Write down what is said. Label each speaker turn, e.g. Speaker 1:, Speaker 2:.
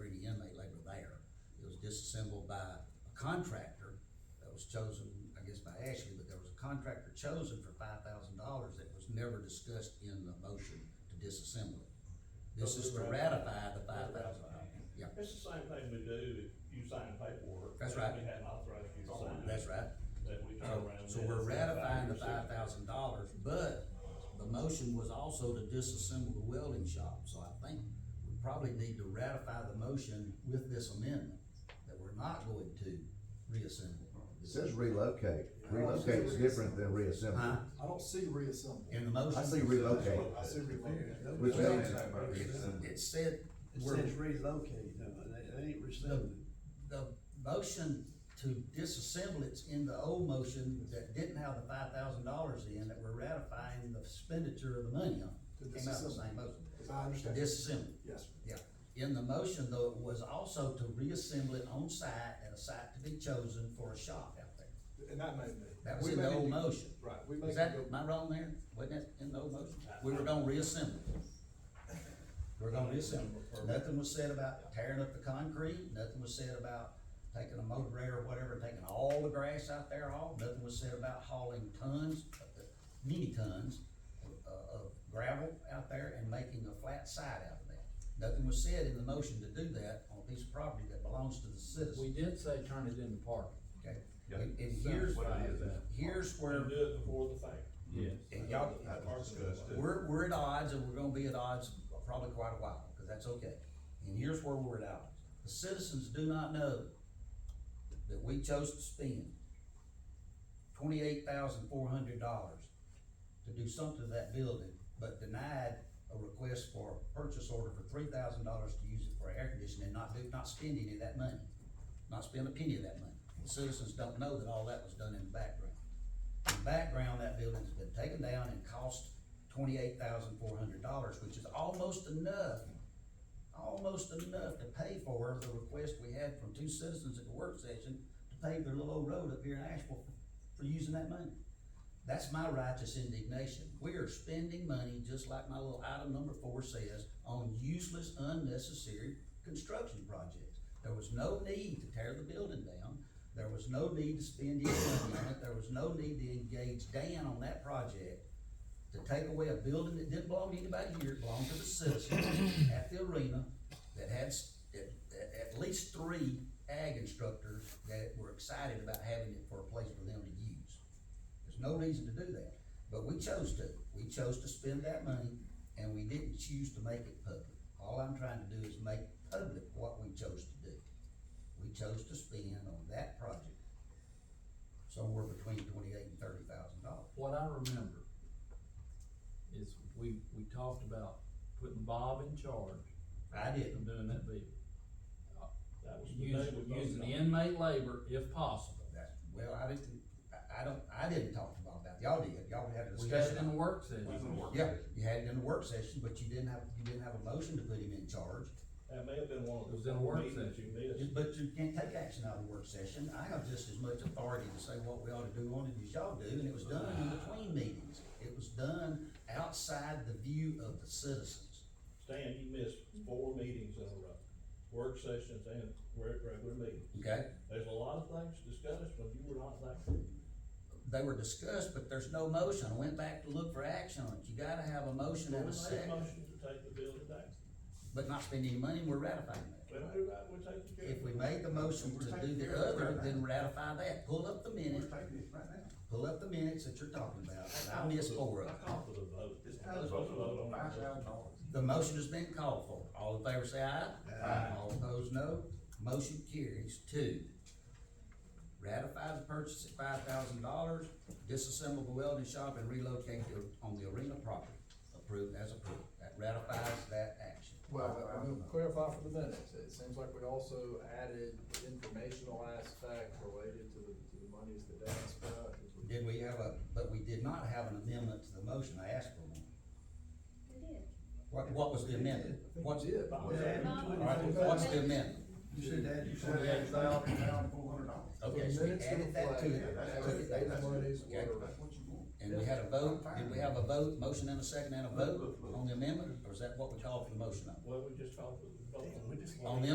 Speaker 1: disassembled by a contractor that was chosen, I guess by Ashley, but there was a contractor chosen for five thousand dollars that was never discussed in the motion to disassemble it. This is to ratify the five thousand. Yeah,
Speaker 2: It's the same thing we do if you sign paperwork.
Speaker 1: That's right.
Speaker 2: We have authorized you to sign.
Speaker 1: Oh, that's right.
Speaker 2: That we turn
Speaker 1: So,
Speaker 2: around.
Speaker 1: Uh, so
Speaker 2: and
Speaker 1: we're
Speaker 2: it's
Speaker 1: ratifying the
Speaker 2: $5,000.
Speaker 1: five thousand dollars, but the motion was also to disassemble the welding shop, so I think we probably need to ratify the motion with this amendment, that we're not going to reassemble.
Speaker 3: It says relocate. Relocate's different than reassemble.
Speaker 1: Huh?
Speaker 4: I don't see reassemble.
Speaker 1: In the motion.
Speaker 3: I see relocate.
Speaker 4: I see relocate.
Speaker 3: Which means-
Speaker 1: It- It said,
Speaker 5: It
Speaker 1: we're,
Speaker 5: says relocate, no, that, that ain't
Speaker 1: the,
Speaker 5: rescinded.
Speaker 1: the motion to disassemble it's in the old motion that didn't have the five thousand dollars in, that we're ratifying the expenditure of the money on.
Speaker 4: To
Speaker 1: Came out of the
Speaker 4: disassemble.
Speaker 1: same motion,
Speaker 4: As I
Speaker 1: to
Speaker 4: understand.
Speaker 1: disassemble.
Speaker 4: Yes.
Speaker 1: Yeah, in the motion though, it was also to reassemble it on site at a site to be chosen for a shop out there.
Speaker 4: And that may be.
Speaker 1: That was
Speaker 4: We
Speaker 1: in the
Speaker 4: may
Speaker 1: old
Speaker 4: need-
Speaker 1: motion.
Speaker 4: Right, we may.
Speaker 1: Is that,
Speaker 4: need to-
Speaker 1: am I wrong there? Wasn't that in the old motion? We were gonna reassemble. it. We're gonna reassemble. it. Nothing was said about tearing up the concrete, nothing was said about taking a motor grader or whatever, taking all the grass out there off, nothing was said about hauling tons, uh, many tons uh, of gravel out there and making a flat side out of that. Nothing was said in the motion to do that on a piece of property that belongs to the
Speaker 6: We
Speaker 1: citizen,
Speaker 6: did say turn it into parking.
Speaker 1: okay?
Speaker 7: Yeah.
Speaker 1: And and here's,
Speaker 7: What it is, uh,
Speaker 1: here's
Speaker 2: We're
Speaker 1: where,
Speaker 2: gonna do it before the fact.
Speaker 6: Yes.
Speaker 1: and y'all,
Speaker 7: That was discussed.
Speaker 1: We're, we're at odds and we're gonna be at odds probably quite a while, because that's okay. And here's where we're at odds. The citizens do not know that we chose to spend twenty-eight thousand four hundred dollars to do something to that building, but denied a request for a purchase order for three thousand dollars to use it for air conditioning and not do, not spend any of that money. Not spend a penny of that money. The citizens don't know that all that was done in the background. In the background, that building's been taken down and cost twenty-eight thousand four hundred dollars, which is almost enough, almost enough to pay for the request we had from two citizens at the work session to pave their little old road up here in Asheville for using that money. That's my righteous indignation. We are spending money, just like my little item number four says, on useless, unnecessary construction projects. There was no need to tear the building down. There was no need to spend any money on it. There was no need to engage Dan on that project to take away a building that didn't belong to anybody here, it belonged to the citizens at the arena that had, s- at, at, at least three ag instructors that were excited about having it for a place for them to use. There's no reason to do that, but we chose to. We chose to spend that money and we didn't choose to make it public. All I'm trying to do is make public what we chose to do. We chose to spend on that project somewhere between twenty-eight and thirty thousand dollars.
Speaker 6: What I remember is we, we talked about putting Bob in charge
Speaker 1: I didn't.
Speaker 6: of doing that deal.
Speaker 2: That was the day we
Speaker 6: Using,
Speaker 2: voted
Speaker 6: using
Speaker 2: on it.
Speaker 6: inmate labor if possible.
Speaker 1: That's, well, I didn't, I, I don't, I didn't talk about that, y'all did, y'all had a
Speaker 6: We had
Speaker 1: discussion.
Speaker 6: it in the
Speaker 1: on-
Speaker 6: work
Speaker 7: It's
Speaker 6: session.
Speaker 7: in work.
Speaker 1: Yeah, you had it in the work session, but you didn't have, you didn't have a motion to put him in charge,
Speaker 2: That may have been one
Speaker 6: It
Speaker 2: of
Speaker 6: was
Speaker 2: the
Speaker 6: in a work
Speaker 2: meetings that you
Speaker 1: You-
Speaker 2: missed.
Speaker 1: but you can't take action out of the work session, I have just as much authority to say what we ought to do on it as y'all do, and it was done in between meetings. It was done outside the view of the citizens,
Speaker 2: Stan, you missed four meetings in a row, work sessions and re- regular meetings.
Speaker 1: okay?
Speaker 2: There's a lot of things discussed when you were not there.
Speaker 1: They were discussed, but there's no motion, I went back to look for action on it, you gotta have a motion
Speaker 2: We
Speaker 1: and
Speaker 2: made
Speaker 1: a
Speaker 2: a
Speaker 1: second,
Speaker 2: motion to take the building down.
Speaker 1: but not spend any money, we're ratifying that.
Speaker 2: We don't do that, we're taking care of it.
Speaker 1: If we made the motion to do the other, then ratify that, pull up the minutes, pull up the minutes that you're talking about, and I missed four of
Speaker 2: I
Speaker 1: them.
Speaker 2: call for the vote.
Speaker 7: It's
Speaker 2: Let's vote on it.
Speaker 1: The motion has been called for, all in favor say aye. All opposed, no, motion carries, two. Ratify the purchase at five thousand dollars, disassemble the welding shop and relocate it on the arena property, approved as approved, that ratifies that action.
Speaker 8: Well, I'm gonna clarify for the minutes, it seems like we also added the informational aspect related to the, to the monies that Dan spent.
Speaker 1: Did we have a, but we did not have an amendment to the motion, I asked for one.
Speaker 9: We did.
Speaker 1: What, what was the amendment? What's,
Speaker 5: it?
Speaker 9: All
Speaker 1: All right, what's the amendment?
Speaker 5: You said that, you said that,
Speaker 1: Okay, so we added that to it, took it down.
Speaker 8: Those monies
Speaker 1: Okay.
Speaker 8: were,
Speaker 1: and we had a vote, did we have a vote, motion and a second and a vote on the amendment, or is that what we called for the motion on?
Speaker 2: Well, we just called for the vote.
Speaker 1: On the